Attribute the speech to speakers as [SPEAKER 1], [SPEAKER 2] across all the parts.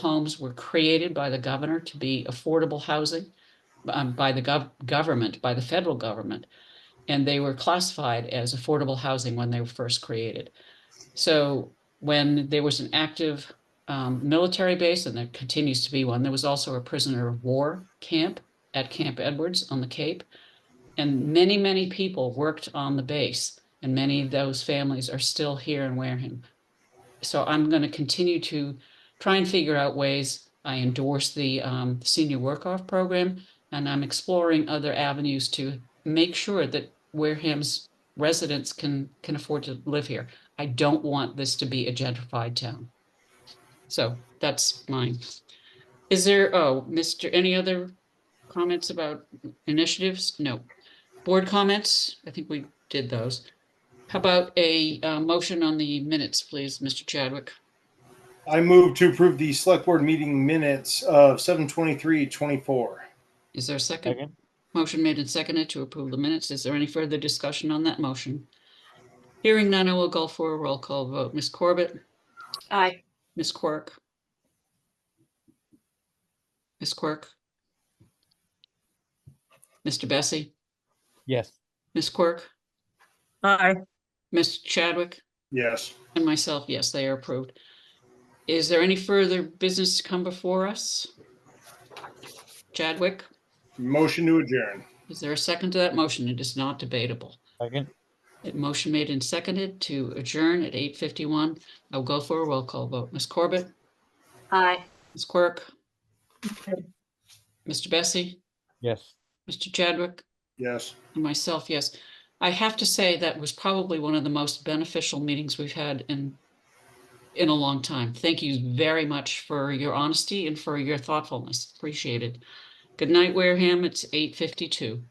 [SPEAKER 1] homes were created by the governor to be affordable housing um, by the gov- government, by the federal government. And they were classified as affordable housing when they were first created. So when there was an active um, military base, and there continues to be one, there was also a prisoner of war camp at Camp Edwards on the Cape. And many, many people worked on the base, and many of those families are still here in Wareham. So I'm going to continue to try and figure out ways. I endorse the um, senior work off program, and I'm exploring other avenues to make sure that Wareham's residents can can afford to live here. I don't want this to be a gentrified town. So that's mine. Is there, oh, Mr., any other comments about initiatives? No. Board comments? I think we did those. How about a uh, motion on the minutes, please, Mr. Chadwick?
[SPEAKER 2] I move to approve the select board meeting minutes of seven twenty-three twenty-four.
[SPEAKER 1] Is there a second?
[SPEAKER 3] Second,
[SPEAKER 1] Motion made and seconded to approve the minutes. Is there any further discussion on that motion? Hearing none, I will go for a roll call vote. Ms. Corbett,
[SPEAKER 4] Aye.
[SPEAKER 1] Ms. Quirk. Ms. Quirk. Mr. Bessie,
[SPEAKER 3] yes.
[SPEAKER 1] Ms. Quirk,
[SPEAKER 5] Aye.
[SPEAKER 1] Ms. Chadwick,
[SPEAKER 2] Yes.
[SPEAKER 1] and myself, yes, they are approved. Is there any further business to come before us? Chadwick,
[SPEAKER 2] Motion to adjourn.
[SPEAKER 1] is there a second to that motion? It is not debatable.
[SPEAKER 3] Second,
[SPEAKER 1] It Motion made and seconded to adjourn at eight fifty-one. I'll go for a roll call vote. Ms. Corbett,
[SPEAKER 4] Aye.
[SPEAKER 1] Ms. Quirk. Mr. Bessie,
[SPEAKER 3] yes.
[SPEAKER 1] Mr. Chadwick,
[SPEAKER 2] Yes.
[SPEAKER 1] and myself, yes. I have to say that was probably one of the most beneficial meetings we've had in in a long time. Thank you very much for your honesty and for your thoughtfulness. Appreciate it. Good night, Wareham. It's eight fifty-two.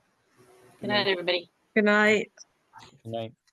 [SPEAKER 4] Good night, everybody.
[SPEAKER 5] Good night.
[SPEAKER 3] Good night.